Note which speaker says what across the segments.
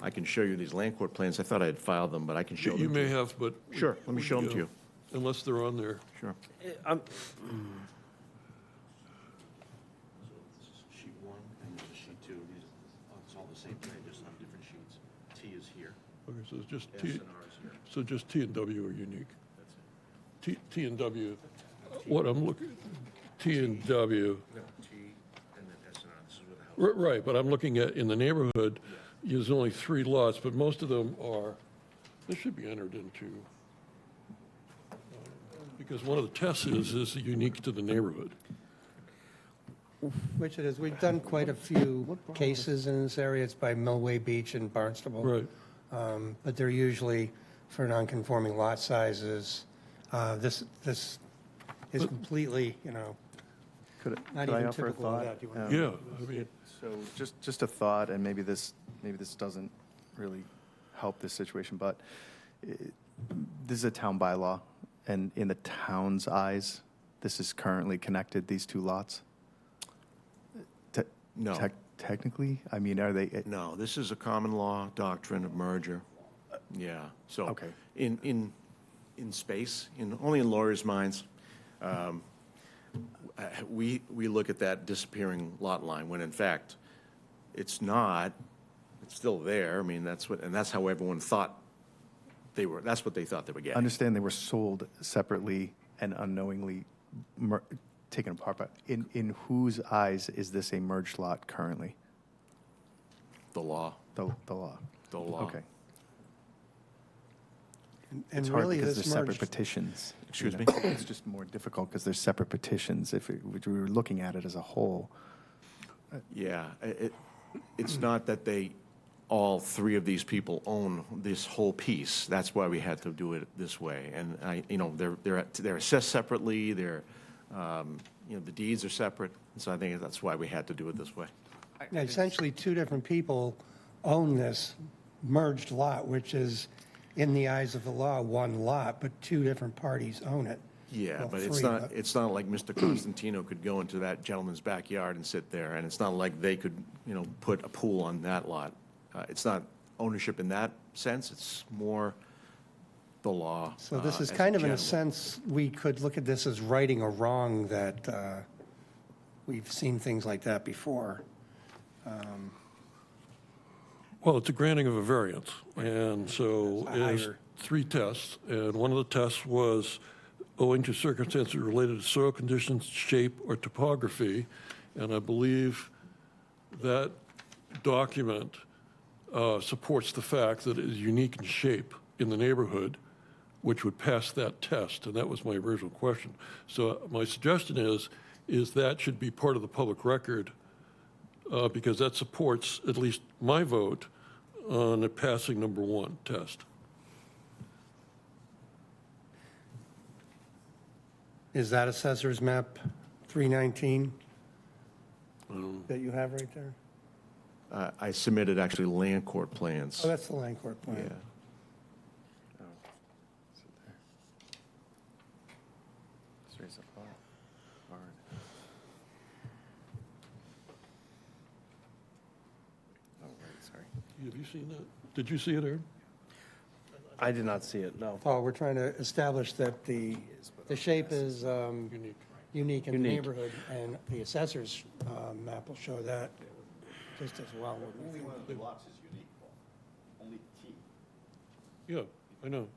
Speaker 1: I can show you these land court plans. I thought I had filed them, but I can show
Speaker 2: You
Speaker 1: them. to
Speaker 2: may
Speaker 1: you.
Speaker 2: have, but.
Speaker 1: Sure, let me show 'em to you.
Speaker 2: Unless they're on there.
Speaker 1: Sure.
Speaker 3: Eh,
Speaker 4: I'm,
Speaker 3: sheet one and this is sheet two. These, oh, it's all the same thing, just on different sheets. T is here,
Speaker 2: Okay, so it's just
Speaker 3: S
Speaker 2: T,
Speaker 3: and R is here.
Speaker 2: so just T and W are unique. T, T and W, what I'm looking, T and W,
Speaker 3: No, T and then S and R. This is where the house.
Speaker 2: ri- right, but I'm looking at, in the neighborhood, there's only three lots, but most of them are, this should be entered into. uh, Because one of the tests is, is it unique to the neighborhood.
Speaker 5: Richard, as we've done quite a few cases in this area, it's by Millway Beach and Barnstable.
Speaker 2: Right,
Speaker 5: Um, But they're usually for non-conforming lot sizes. Uh, This, this is completely, you know,
Speaker 6: Could it-
Speaker 5: Not
Speaker 6: could I
Speaker 5: even
Speaker 6: offer a
Speaker 5: typical of
Speaker 6: thought?
Speaker 5: that, you wanna-
Speaker 6: Um,
Speaker 2: yeah, I mean,
Speaker 6: So just, just a thought, and maybe this, maybe this doesn't really help this situation, but it- this is a town bylaw, and in the town's eyes, this is currently connected, these two lots? Te-
Speaker 1: No.
Speaker 6: tec- Technically? I mean, are they, it-
Speaker 1: No, this is a common law doctrine of merger. Yeah, so.
Speaker 6: Okay.
Speaker 1: In, in, in space, in, only in lawyers' minds, um, uh, we, we look at that disappearing lot line, when in fact, it's not, it's still there. I mean, that's what, and that's how everyone thought they were, that's what they thought they were getting.
Speaker 6: understand they were sold separately and unknowingly mer- taken apart, but in, in whose eyes is this a merged lot currently?
Speaker 1: The law,
Speaker 6: The, the law?
Speaker 1: the law.
Speaker 6: Okay.
Speaker 5: and
Speaker 6: It's hard
Speaker 5: really
Speaker 6: because they're
Speaker 5: this
Speaker 6: separate
Speaker 5: merged.
Speaker 6: petitions. you
Speaker 1: Excuse
Speaker 6: know.
Speaker 1: me?
Speaker 6: It's just more difficult because they're separate petitions if it- if we were looking at it as a whole.
Speaker 1: Yeah, i- it, it's not that they, all three of these people own this whole piece. That's why we had to do it this way. And I, you know, they're, they're, they're assessed separately, they're, um, you know, the deeds are separate. So I think that's why we had to do it this way.
Speaker 5: Now, Essentially, two different people own this merged lot, which is, in the eyes of the law, one lot, but two different parties own it.
Speaker 1: Yeah,
Speaker 5: Well,
Speaker 1: but it's
Speaker 5: three,
Speaker 1: not,
Speaker 5: but-
Speaker 1: it's not like Mr. Constantino could go into that gentleman's backyard and sit there, and it's not like they could, you know, put a pool on that lot. Uh, It's not ownership in that sense, it's more the law.
Speaker 5: So this
Speaker 1: uh,
Speaker 5: is
Speaker 1: as
Speaker 5: kind of, in a
Speaker 1: general.
Speaker 5: sense, we could look at this as righting a wrong that uh, we've seen things like that before.
Speaker 2: Well, it's a granting of a variance, and so
Speaker 5: It's a
Speaker 2: it is
Speaker 5: higher-
Speaker 2: three tests, and one of the tests was owing to circumstances related to soil conditions, shape, or topography, and I believe that document uh, supports the fact that it is unique in shape in the neighborhood, which would pass that test, and that was my original question. So uh, my suggestion is, is that should be part of the public record, uh, because that supports at least my vote on the passing number one test.
Speaker 5: Is that Assessor's Map 319
Speaker 1: Mm.
Speaker 5: that you have right there?
Speaker 1: Uh, I submitted actually land court plans.
Speaker 5: Oh, that's the land court
Speaker 1: Yeah.
Speaker 5: plan.
Speaker 2: Have you seen that? Did you see it, Aaron?
Speaker 4: I did not see it, no.
Speaker 5: Paul, we're trying to establish that the, the shape is um,
Speaker 2: Unique.
Speaker 5: unique in the
Speaker 4: Unique.
Speaker 5: neighborhood, and the Assessor's um, Map will show that just as well. wouldn't you think?
Speaker 3: of the blocks is unique, Only T.
Speaker 2: Yeah, I know.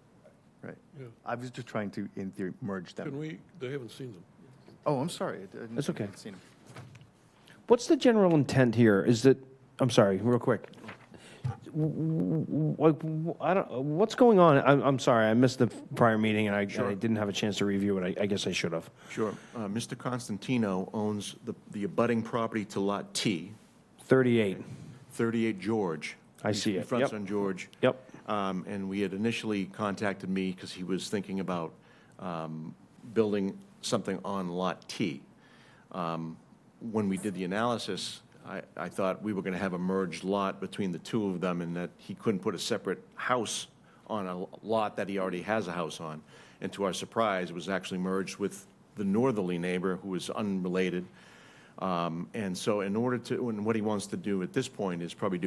Speaker 6: Right.
Speaker 2: Yeah.
Speaker 6: I was just trying to, in theory, merge
Speaker 2: Can
Speaker 6: them.
Speaker 2: we, they haven't seen them.
Speaker 6: Oh, I'm sorry.
Speaker 4: That's okay.
Speaker 6: Seen them.
Speaker 4: What's the general intent here? Is that, I'm sorry, real quick. W- w- w- I don't, what's going on? I'm, I'm sorry, I missed the prior meeting and I, and I didn't have a chance to review it. I, I guess I should have.
Speaker 1: Sure. Uh, Mr. Constantino owns the, the abutting property to Lot T,
Speaker 4: 38.
Speaker 1: 38 George.
Speaker 4: I see
Speaker 1: He
Speaker 4: it.
Speaker 1: fronts
Speaker 4: Yep.
Speaker 1: on George.
Speaker 4: Yep.
Speaker 1: Um, And we had initially contacted me because he was thinking about um, building something on Lot T. Um, When we did the analysis, I, I thought we were going to have a merged lot between the two of them and that he couldn't put a separate house on a lot that he already has a house on. And to our surprise, it was actually merged with the northerly neighbor who was unrelated. Um, And so in order to, and what he wants to do at this point is probably do